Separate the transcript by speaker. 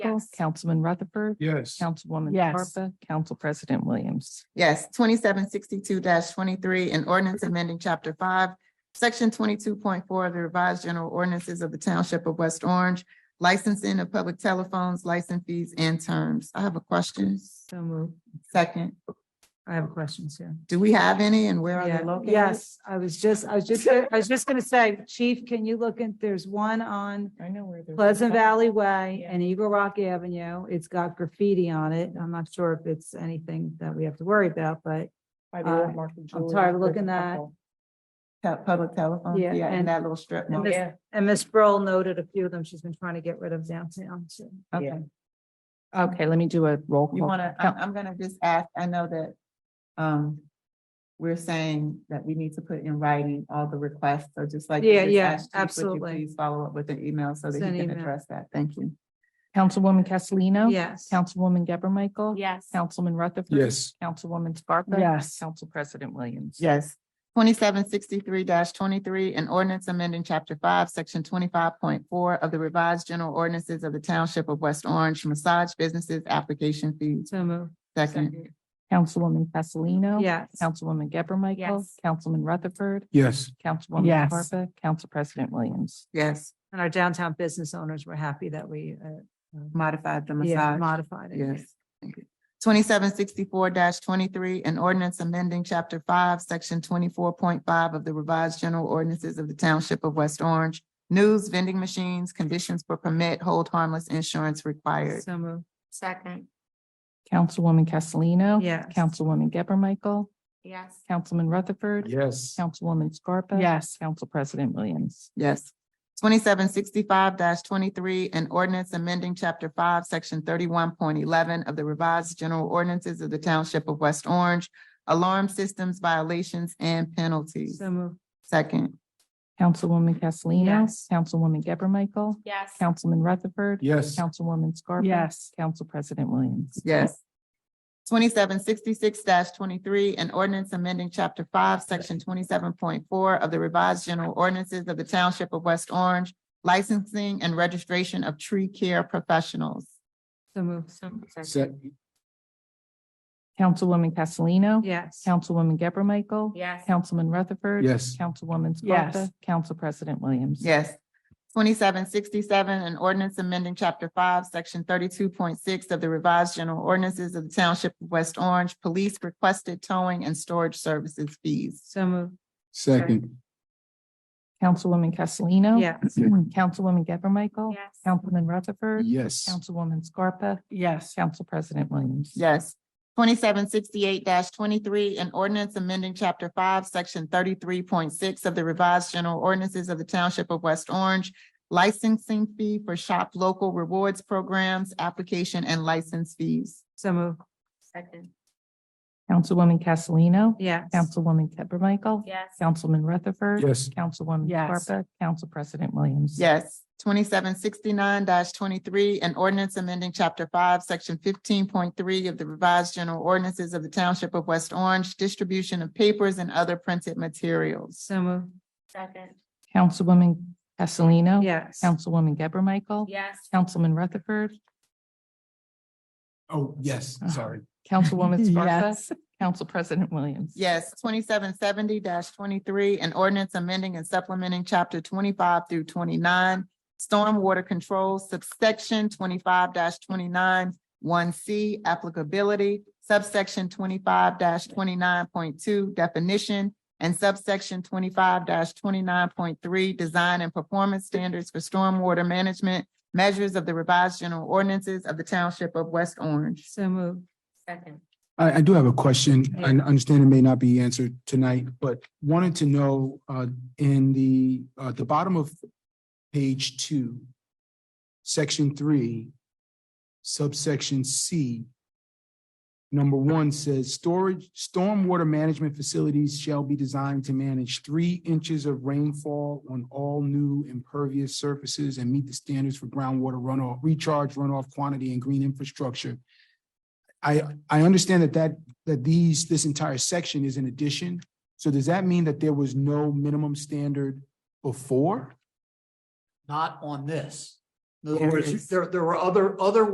Speaker 1: Yes.
Speaker 2: Councilman Rutherford.
Speaker 3: Yes.
Speaker 2: Councilwoman
Speaker 1: Yes.
Speaker 2: Scarpa, Council President Williams.
Speaker 1: Yes, twenty-seven sixty-two twenty-three, an ordinance amending chapter five, section twenty-two point four of the revised general ordinances of the township of West Orange, licensing of public telephones, license fees and terms. I have a question.
Speaker 4: So moved.
Speaker 1: Second,
Speaker 4: I have a question, Sarah.
Speaker 1: do we have any and where are
Speaker 4: Yeah,
Speaker 1: they located?
Speaker 4: Yes, I was just, I was just, I was just gonna say, Chief, can you look in, there's one on
Speaker 2: I know where they're.
Speaker 4: Pleasant Valley Way and Eagle Rock Avenue. It's got graffiti on it. I'm not sure if it's anything that we have to worry about, but
Speaker 2: By
Speaker 4: the old uh, I'm tired of looking at.
Speaker 1: Te- Public telephones,
Speaker 4: Yeah,
Speaker 1: yeah, in
Speaker 4: and-
Speaker 1: that little strip
Speaker 4: And
Speaker 1: mall.
Speaker 4: this- And Miss Broll noted a few of them. She's been trying to get rid of downtown. so.
Speaker 1: Okay.
Speaker 2: Okay, let me do a roll
Speaker 1: You
Speaker 2: call.
Speaker 1: wanna, I'm, I'm gonna just ask, I know that, um, we're saying that we need to put in writing all the requests, so just like. you
Speaker 4: Yeah,
Speaker 1: just
Speaker 4: yeah,
Speaker 1: asked Chief, would you
Speaker 4: absolutely.
Speaker 1: Please follow up with an email so that
Speaker 4: Send
Speaker 1: he can
Speaker 4: email.
Speaker 1: address that. Thank you.
Speaker 2: Councilwoman Castellino.
Speaker 4: Yes.
Speaker 2: Councilwoman Geber Michael.
Speaker 5: Yes.
Speaker 2: Councilman Rutherford.
Speaker 3: Yes.
Speaker 2: Councilwoman Scarpa.
Speaker 4: Yes.
Speaker 2: Council President Williams.
Speaker 1: Yes. Twenty-seven sixty-three twenty-three, an ordinance amending chapter five, section twenty-five point four of the revised general ordinances of the township of West Orange, massage businesses, application fees.
Speaker 4: So moved.
Speaker 1: Second,
Speaker 2: Councilwoman Castellino.
Speaker 4: Yes.
Speaker 2: Councilwoman Geber Michael.
Speaker 5: Yes.
Speaker 2: Councilman Rutherford.
Speaker 3: Yes.
Speaker 2: Councilwoman
Speaker 4: Yes.
Speaker 2: Scarpa. Council President Williams.
Speaker 1: yes,
Speaker 4: And our downtown business owners were happy that we uh,
Speaker 1: modified the
Speaker 4: yeah,
Speaker 1: massage.
Speaker 4: modified it.
Speaker 1: Yes. Twenty-seven sixty-four twenty-three, an ordinance amending chapter five, section twenty-four point five of the revised general ordinances of the township of West Orange. News, vending machines, conditions for permit, hold harmless insurance required.
Speaker 4: So moved.
Speaker 5: Second,
Speaker 2: Councilwoman Castellino.
Speaker 4: Yes.
Speaker 2: Councilwoman Geber Michael.
Speaker 5: yes.
Speaker 2: Councilman Rutherford.
Speaker 3: Yes.
Speaker 2: Councilwoman Scarpa.
Speaker 4: Yes.
Speaker 2: Council President Williams.
Speaker 1: Yes. Twenty-seven sixty-five twenty-three, an ordinance amending chapter five, section thirty-one point eleven of the revised general ordinances of the township of West Orange. Alarm systems violations and penalties.
Speaker 4: So moved.
Speaker 1: Second,
Speaker 2: Councilwoman Castellino.
Speaker 4: Yes.
Speaker 2: Councilwoman Geber Michael.
Speaker 5: Yes.
Speaker 2: Councilman Rutherford.
Speaker 3: Yes.
Speaker 2: Councilwoman Scarpa.
Speaker 4: Yes.
Speaker 2: Council President Williams.
Speaker 1: Yes. Twenty-seven sixty-six twenty-three, an ordinance amending chapter five, section twenty-seven point four of the revised general ordinances of the township of West Orange, licensing and registration of tree care professionals.
Speaker 4: So moved.
Speaker 3: Se-
Speaker 2: Councilwoman Castellino.
Speaker 4: Yes.
Speaker 2: Councilwoman Geber Michael.
Speaker 5: Yes.
Speaker 2: Councilman Rutherford.
Speaker 3: Yes.
Speaker 2: Councilwoman
Speaker 4: Yes.
Speaker 2: Scarpa. Council President Williams.
Speaker 1: Yes. Twenty-seven sixty-seven, an ordinance amending chapter five, section thirty-two point six of the revised general ordinances of the township of West Orange, police requested towing and storage services fees.
Speaker 4: So moved.
Speaker 3: Second.
Speaker 2: Councilwoman Castellino.
Speaker 4: Yes.
Speaker 2: Councilwoman Geber Michael.
Speaker 5: Yes.
Speaker 2: Councilman Rutherford.
Speaker 3: Yes.
Speaker 2: Councilwoman Scarpa.
Speaker 4: Yes.
Speaker 2: Council President Williams.
Speaker 1: Yes. Twenty-seven sixty-eight twenty-three, an ordinance amending chapter five, section thirty-three point six of the revised general ordinances of the township of West Orange, licensing fee for shop local rewards programs, application and license fees.
Speaker 4: So moved.
Speaker 5: Second,
Speaker 2: Councilwoman Castellino.
Speaker 4: Yes.
Speaker 2: Councilwoman Geber Michael.
Speaker 5: yes.
Speaker 2: Councilman Rutherford.
Speaker 3: Yes.
Speaker 2: Councilwoman
Speaker 4: Yes.
Speaker 2: Scarpa. Council President Williams.
Speaker 1: Yes. Twenty-seven sixty-nine twenty-three, an ordinance amending chapter five, section fifteen point three of the revised general ordinances of the township of West Orange, distribution of papers and other printed materials.
Speaker 4: So moved.
Speaker 5: Second,
Speaker 2: Councilwoman Castellino.
Speaker 4: Yes.
Speaker 2: Councilwoman Geber Michael.
Speaker 5: yes.
Speaker 2: Councilman Rutherford.
Speaker 3: Oh, yes, sorry.
Speaker 2: Councilwoman Scarpa. Council President Williams.
Speaker 1: Yes, twenty-seven seventy twenty-three, an ordinance amending and supplementing chapter twenty-five through twenty-nine, stormwater control subsection twenty-five twenty-nine, one C applicability, subsection twenty-five twenty-nine point two definition, and subsection twenty-five twenty-nine point three, design and performance standards for stormwater management, measures of the revised general ordinances of the township of West Orange.
Speaker 4: So moved.
Speaker 5: Second,
Speaker 3: I, I do have a question. I understand it may not be answered tonight, but wanted to know, uh, in the, uh, the bottom of page two, section three, subsection C, number one says, storage, stormwater management facilities shall be designed to manage three inches of rainfall on all new impervious surfaces and meet the standards for groundwater runoff, recharge runoff quantity and green infrastructure. I, I understand that that, that these, this entire section is an addition. So does that mean that there was no minimum standard before?
Speaker 6: not on this. In
Speaker 1: There
Speaker 6: other words,
Speaker 1: is.
Speaker 6: there, there were other, other